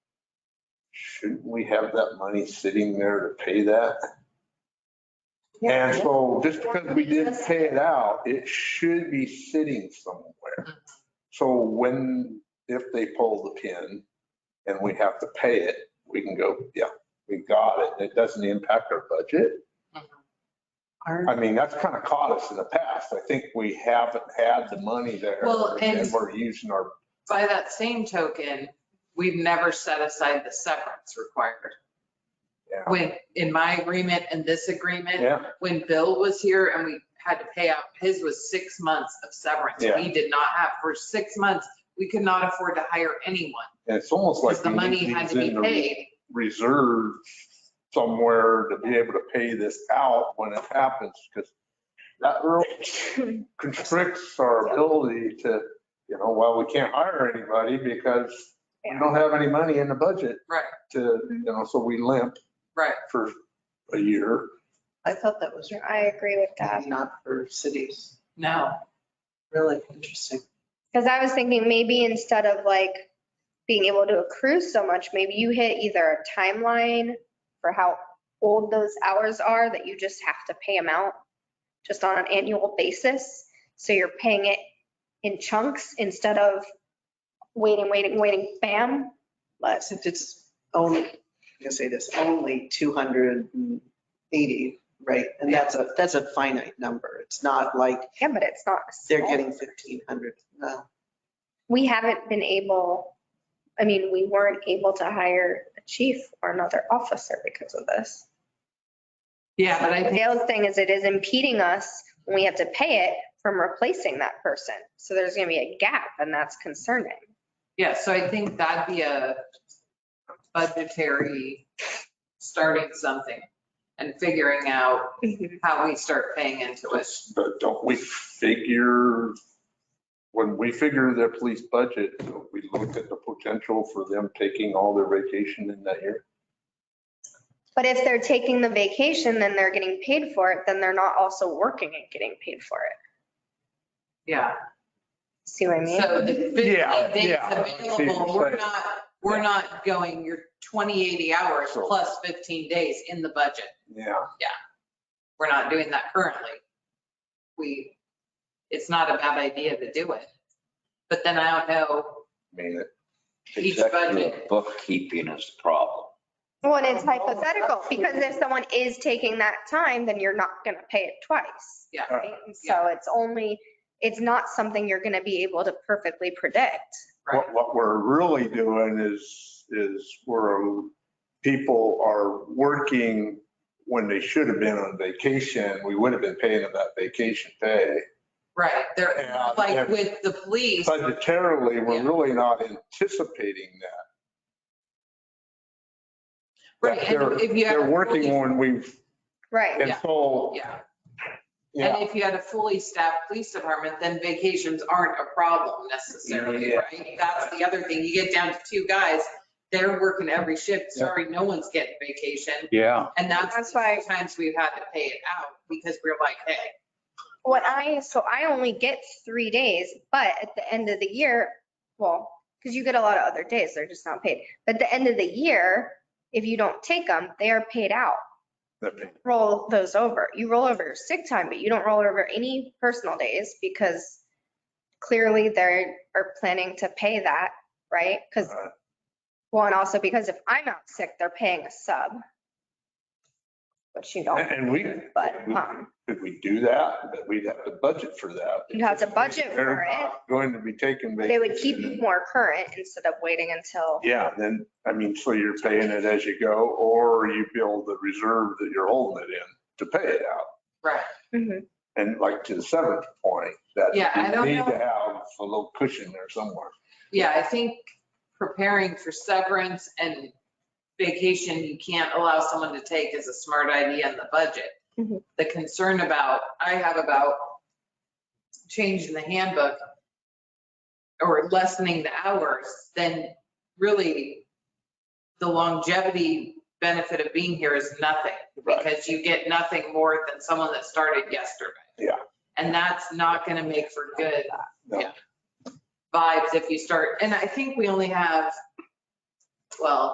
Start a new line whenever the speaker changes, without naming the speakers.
shouldn't we have that money sitting there to pay that? And
Yeah.
so just because we didn't pay it out, it should be sitting somewhere. So when, if they pull the pin and we have to pay it, we can go, yeah, we got it. It doesn't impact our budget.
Mm-hmm.
Our-
I mean, that's kind of caught us in the past. I think we haven't had the money there.
Well, and-
We're using our,
By that same token, we've never set aside the severance required.
Yeah.
When, in my agreement and this agreement,
yeah,
when Bill was here and we had to pay out, his was six months of severance.
Yeah.
We did not have, for six months, we could not afford to hire anyone
and it's almost like.
because the
we
money
need
had to
these in
be
the
paid.
Reserve somewhere to be able to pay this out when it happens, because that really constricts our ability to, you know, well, we can't hire anybody because we don't have any money in the budget
Right, Mm-hmm.
to, you know, so we limp
right.
for a year.
I thought that was
I agree with that.
not for cities.
No,
Really interesting.
Because I was thinking maybe instead of like being able to accrue so much, maybe you hit either a timeline for how old those hours are that you just have to pay them out just on an annual basis. So you're paying it in chunks instead of waiting, waiting, waiting, bam. But
Except it's only, I'm gonna say this, only 280, right? And that's a, that's a finite number. It's not like
yeah, but it's not. a
they're
small-
getting 1,500. No.
We haven't been able, I mean, we weren't able to hire a chief or another officer because of this.
yeah, but I
The
think,
other thing is it is impeding us when we have to pay it from replacing that person. So there's going to be a gap and that's concerning.
yeah, so I think that'd be a budgetary, starting something and figuring out how we start paying into it.
But don't we figure, when we figure their police budget, don't we look at the potential for them taking all their vacation in that year?
But if they're taking the vacation, then they're getting paid for it, then they're not also working and getting paid for it.
Yeah.
See what I mean?
So the 15
Yeah,
days
yeah.
available, we're not, we're not going your 20, 80 hours
So-
plus 15 days in the budget.
Yeah.
We're not doing that currently. We, it's not a bad idea to do it. But then I don't know,
I mean,
Each
Executive
budget.
Bookkeeping is the problem.
Well, and it's hypothetical because if someone is taking that time, then you're not going to pay it twice.
Yeah.
right? And So it's only, it's not something you're going to be able to perfectly predict.
right?
What, what we're really doing is, is we're, people are working when they should have been on vacation. We would have been paying them that vacation pay.
Right, they're,
Yeah, yeah.
like with the police,
Budgetarily, we're
Yeah.
really not anticipating that.
right,
That
and
they're-
if you have.
They're
a
working
fully-
when we've,
Right.
and
Yeah.
so,
Yeah,
yeah.
and if you had a fully staffed police department, then vacations aren't a problem necessarily,
Yeah.
right? That's the other thing, you get down to two guys, they're working every shift,
Yeah.
sorry, no one's getting vacation.
Yeah.
And that's
That's
the
why-
few times we've had to pay it out because we're like, hey,
What I, so I only get three days, but at the end of the year, well, because you get a lot of other days, they're just not paid. But at the end of the year, if you don't take them, they are paid out. Roll those over. You roll over your sick time, but you don't roll over any personal days because clearly they are planning to pay that, right? Because, well, and also because if I'm out sick, they're paying a sub. Which you don't,
And we,
Oh. but, um,
could we do that? But we'd have to budget for that.
you have to budget for
They're
it.
not going to be taking vacation.
They would keep you more current instead of waiting until,
Yeah, then, I mean, so you're paying it as you go, or you build the reserve that you're holding it in to pay it out.
right,
Mhm.
And like to the seventh point, that
Yeah, I
you
don't
need
know.
to have a little cushion there somewhere.
yeah, I think preparing for severance and vacation you can't allow someone to take is a smart idea in the budget.
Mhm.
The concern about, I have about changing the handbook or lessening the hours, then really the longevity benefit of being here is nothing.
Right.
because you get nothing more than someone that started yesterday.
Yeah.
And that's not going to make for good
No.
yeah, vibes if you start, and I think we only have, well,